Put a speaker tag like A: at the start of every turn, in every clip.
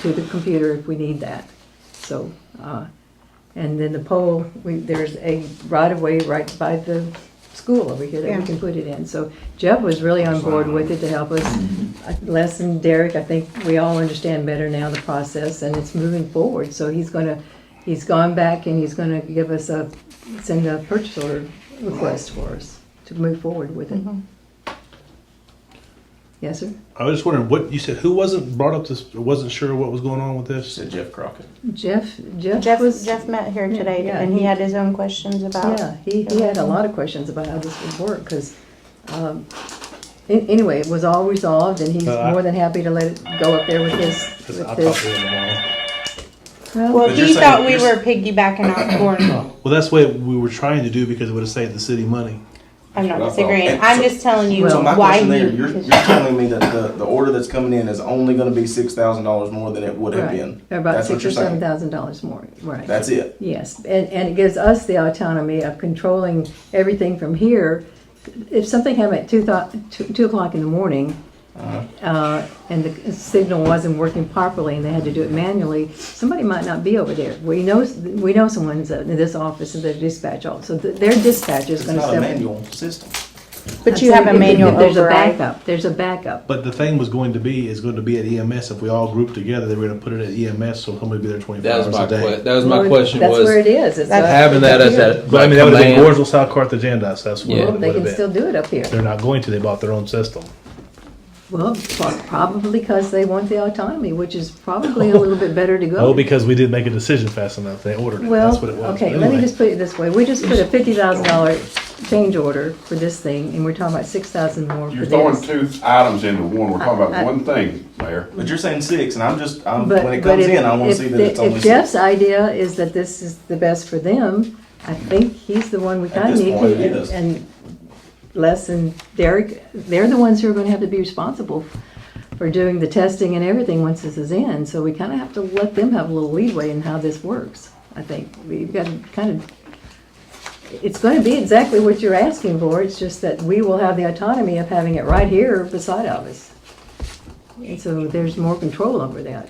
A: to the computer if we need that. So, uh, and then the pole, we, there's a right of way right by the school over here that we
B: Yeah.
A: can put it in. So Jeff was really on board with it to help us. Les and Derek, I think we all understand better now the process and it's moving forward. So he's gonna, he's gone back and he's gonna give us a, send a purchase order request for us to move forward with it.
B: Mm-hmm.
A: Yes, sir?
C: I was just wondering what you said. Who wasn't brought up this? Wasn't sure what was going on with this.
D: said Jeff Crockett.
A: Jeff, Jeff
B: Jeff,
A: was.
B: Jeff met here today
A: yeah,
B: and he
A: he-
B: had his own questions about.
A: Yeah, he, he had a lot of questions about how this would work, because, anyway, it was all resolved, and he's
C: Uh, I-
A: more than happy to let it go up there with his,
C: That's- I
A: with
C: talked to
A: his.
C: him tomorrow.
A: Well,
B: Well,
D: But you're
B: he
D: saying-
B: thought we
D: you're s-
B: were piggybacking off Cornwall.
C: Well, that's what we were trying to do because it would have saved the city money.
B: I'm not
D: Well,
B: disagreeing.
D: and
B: I'm
D: so-
B: just telling you
D: So my
B: why
D: question there,
B: he.
D: you're, you're telling me that the, the order that's coming in is only gonna be six thousand dollars more than it would have
A: right,
D: been?
A: about
D: That's what
A: six or
D: you're
A: seven
D: saying.
A: thousand dollars more, right.
D: That's it.
A: Yes, and, and it gives us the autonomy of controlling everything from here. If something happened at two thou- two- two o'clock in the morning, uh, and the signal wasn't working properly and they had to do it manually, somebody might not be over there. We know, we know someone's in this office and their dispatch office, so th- their dispatcher is
D: It's
A: gonna
D: not a
A: step in.
D: manual system.
B: But you have a
A: If- if
B: manual
A: There's a
B: override.
A: backup, there's a backup.
C: But the thing was going to be is going to be at EMS. If we all grouped together, they were going to put it at EMS, so somebody would be there twenty four
E: That was
C: hours
E: my
C: a day.
E: que- that was my question
A: That's where it
E: was
A: is. It's a-
B: That's-
E: having that as
A: it's
E: that.
C: But I mean, that would have been
E: command-
C: Gorgeville, South Carthagena. So that's what
E: Yeah.
C: it
A: Well,
C: would
A: They
C: have
A: can
C: been.
A: still do it up here.
C: They're not going to. They bought their own system.
A: Well, pro- probably because they want the autonomy, which is probably a little bit better to
C: Oh,
A: go.
C: because we didn't make a decision fast enough. They ordered it.
A: Well,
C: that's what it was.
A: okay, let
C: But
A: me
C: anyway.
A: just put it this way. We just put a fifty thousand dollar change order for this thing, and we're talking about six thousand more for
F: You're throwing
A: this.
F: two items into one, we're
A: I-
F: talking
A: I-
F: about one thing, Mayor.
D: But you're saying six, and I'm just, I'm,
A: But-
D: when it
A: but
D: comes
A: if-
D: in, I wanna
A: if
D: see that
A: the-
D: it's only
A: If Jeff's
D: six.
A: idea is that this is the best for them, I think he's the one we kinda
D: this
A: need.
D: point,
A: to-
D: it is.
A: And Les and Derek, they're the ones who are gonna have to be responsible for doing the testing and everything once this is in, so we kinda have to let them have a little leadway in how this works, I think. We've got to kind of it's going to be exactly what you're asking for, it's just that we will have the autonomy of having it right here beside of us. And so there's more control over that,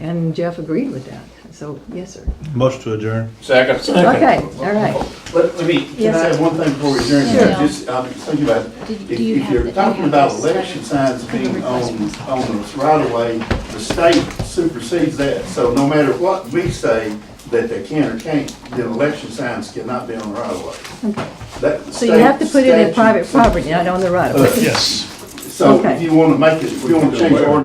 A: and Jeff agreed with that, so, yes, sir.
C: motion to adjourn.
F: Second.
A: Okay, all right.
G: Let, let me, can
A: Yes,
G: I
A: sir.
G: have one thing before we adjourn?
H: Sure.
G: Just, I'm thinking about,
H: Did-
G: if,
H: do you
G: if
H: have the-
G: you're
H: do you
G: talking
H: have
G: about
H: this
G: election signs
H: letter?
G: being on,
H: Request
G: on the right of way, the state supersedes that. So no matter what we say that they can or can't, the election signs cannot be on the right of way. That- the
A: So you have to
G: state
A: put it in
G: statute-
A: private property, not on the right of way.
C: Yes.
G: So
A: Okay.
G: if you wanna make it, if you wanna change the ordinance